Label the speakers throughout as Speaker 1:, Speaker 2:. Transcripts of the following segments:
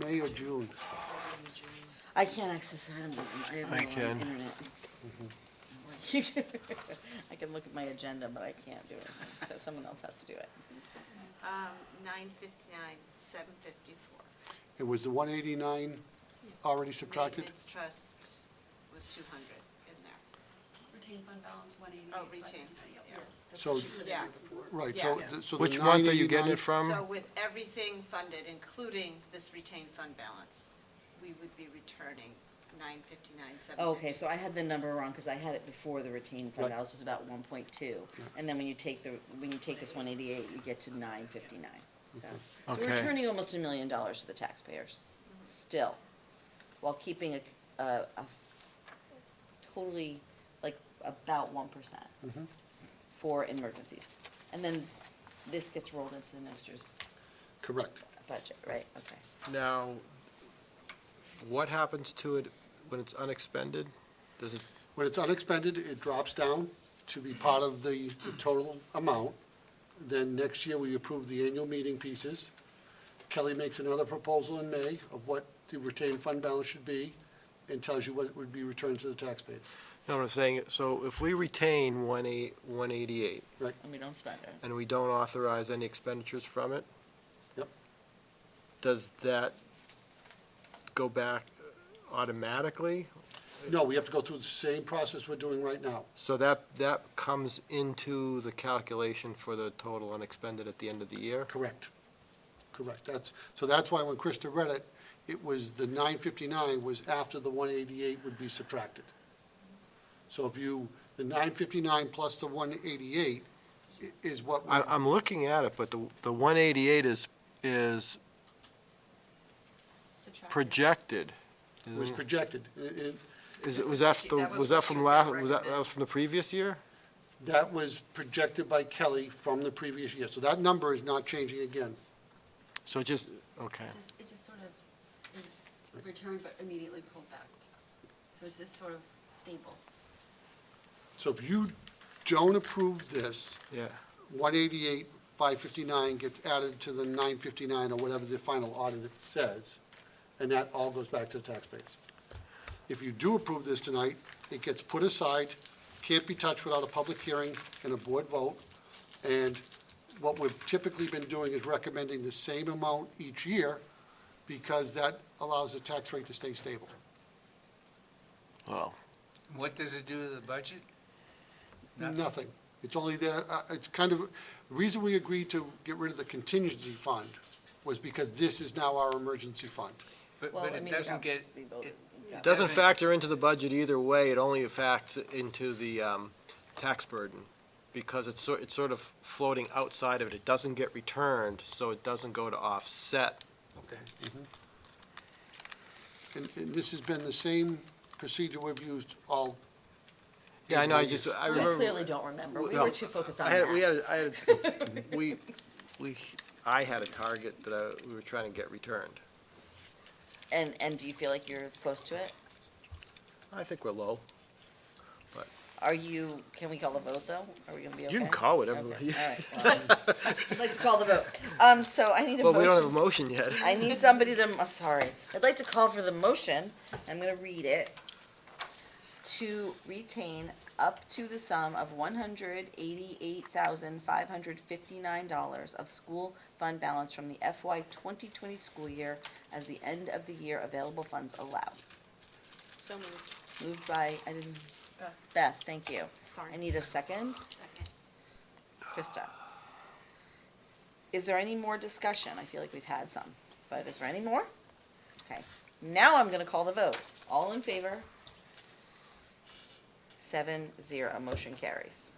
Speaker 1: May or June?
Speaker 2: I can't access it. I'm- I have
Speaker 1: I
Speaker 2: no
Speaker 1: can. Mm-hmm.
Speaker 2: internet. I can look at my agenda, but I can't do it, so someone else has to do it.
Speaker 3: Um, nine fifty-nine, seven fifty-four.
Speaker 1: It was the 189 already subtracted?
Speaker 3: Maintenance trust was two hundred in there.
Speaker 4: Retained fund balance, one eighty.
Speaker 3: Oh, retained, yeah.
Speaker 1: So,
Speaker 3: Yeah.
Speaker 1: right, so,
Speaker 3: Yeah.
Speaker 1: the- so the
Speaker 5: Which month are you
Speaker 1: 989
Speaker 5: getting it from?
Speaker 3: So with everything funded, including this retained fund balance, we would be returning nine fifty-nine, seven fifty-four.
Speaker 2: Okay, so I had the number wrong, because I had it before the retained fund
Speaker 1: Right.
Speaker 2: balance was about one point two. And then when you take the, when you take this one eighty-eight, you get to nine fifty-nine, so. So we're
Speaker 5: Okay.
Speaker 2: returning almost a million dollars to the taxpayers, still, while keeping a, a, a totally, like, about one percent for emergencies. And then this gets rolled into next year's
Speaker 1: Correct.
Speaker 2: budget, right, okay.
Speaker 5: Now, what happens to it when it's unexpended? Does it,
Speaker 1: When it's unexpended, it drops down to be part of the the total amount. Then next year, we approve the annual meeting pieces. Kelly makes another proposal in May of what the retained fund balance should be and tells you what would be returned to the taxpayers.
Speaker 5: no, I'm saying, so if we retain one eight, one eighty-eight,
Speaker 2: And we don't spend it.
Speaker 5: and we don't authorize any expenditures from it,
Speaker 1: Yep.
Speaker 5: does that go back automatically?
Speaker 1: No, we have to go through the same process we're doing right now.
Speaker 5: So that, that comes into the calculation for the total unexpended at the end of the year?
Speaker 1: Correct. Correct. That's, so that's why when Krista read it, it was, the 959 was after the 188 would be subtracted. So if you, the 959 plus the 188 i- is what,
Speaker 5: I, I'm looking at it, but the, the one eighty-eight is, is projected.
Speaker 1: was projected. It- it-
Speaker 5: Is, it- was Mm. that,
Speaker 4: She-
Speaker 5: the-
Speaker 4: that was
Speaker 5: was
Speaker 4: what
Speaker 5: that
Speaker 4: she
Speaker 5: from
Speaker 4: was
Speaker 5: last,
Speaker 4: gonna
Speaker 5: was that, that
Speaker 4: recommend.
Speaker 5: was from the previous year?
Speaker 1: That was projected by Kelly from the previous year. So that number is not changing again.
Speaker 5: So it just, okay.
Speaker 4: It just, it just sort of is returned but immediately pulled back. So it's just sort of stable.
Speaker 1: So if you don't approve this,
Speaker 5: Yeah,
Speaker 1: 188, 559 gets added to the 959 or whatever the final audit says, and that all goes back to the taxpayers. If you do approve this tonight, it gets put aside, can't be touched without a public hearing and a board vote. And what we've typically been doing is recommending the same amount each year because that allows the tax rate to stay stable.
Speaker 5: wow.
Speaker 6: What does it do to the budget? Nothing.
Speaker 1: Nothing. It's only there, uh, it's kind of, the reason we agreed to get rid of the contingency fund was because this is now our emergency fund.
Speaker 6: But,
Speaker 2: Well,
Speaker 6: but
Speaker 2: I mean, we
Speaker 6: it doesn't
Speaker 2: got-
Speaker 6: get,
Speaker 2: we voted.
Speaker 6: it-
Speaker 2: We
Speaker 6: it
Speaker 5: It doesn't factor into the budget either way, it only affects into the, um, tax burden, because it's sort, it's sort of floating outside of it, it doesn't get returned, so it doesn't go to offset.
Speaker 6: Okay.
Speaker 1: And, and this has been the same procedure we've used all.
Speaker 5: Yeah, I know, I
Speaker 1: eight
Speaker 5: just,
Speaker 1: years.
Speaker 5: I
Speaker 2: We
Speaker 5: remember.
Speaker 2: clearly don't remember. We
Speaker 5: No.
Speaker 2: were too focused on
Speaker 5: I had, we had,
Speaker 2: maths.
Speaker 5: I had, we, we, I had a target that I, we were trying to get returned.
Speaker 2: And, and do you feel like you're close to it?
Speaker 5: I think we're low.
Speaker 2: Are you, can we call the vote, though? Are we gonna be okay?
Speaker 5: You can call it, everyone.
Speaker 2: Okay, all right, well, I'd like to call the vote. Um, so I need a
Speaker 5: Well, we don't have a
Speaker 2: motion.
Speaker 5: motion yet.
Speaker 2: I need somebody to, I'm sorry. I'd like to call for the motion. I'm gonna read it. To retain up to the sum of one hundred eighty-eight thousand five hundred fifty-nine dollars of school fund balance from the FY twenty twenty school year as the end of the year available funds allowed.
Speaker 3: So moved.
Speaker 2: Moved by, I didn't,
Speaker 4: Beth.
Speaker 2: Beth, thank you.
Speaker 3: Sorry.
Speaker 2: I need a second.
Speaker 3: Second.
Speaker 2: Krista. Is there any more discussion? I feel like we've had some, but is there any more? Okay, now I'm gonna call the vote. All in favor? Seven, zero, motion carries.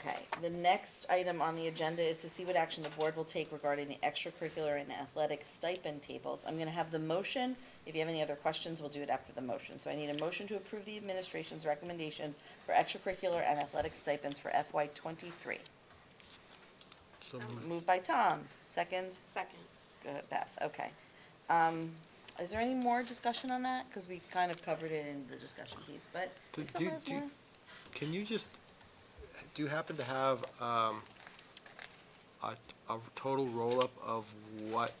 Speaker 2: Okay, the next item on the agenda is to see what action the board will take regarding the extracurricular and athletic stipend tables. I'm gonna have the motion. If you have any other questions, we'll do it after the motion. So I need a motion to approve the administration's recommendation for extracurricular and athletic stipends for FY twenty-three. Moved by Tom, second,
Speaker 3: Second.
Speaker 2: Good, Beth, okay. Um, is there any more discussion on that? Because we kind of covered it in the discussion piece, but
Speaker 5: Do-
Speaker 2: if someone
Speaker 5: do-
Speaker 2: has
Speaker 5: do-
Speaker 2: more,
Speaker 5: Can you just, do you happen to have, um, a, a total roll-up of what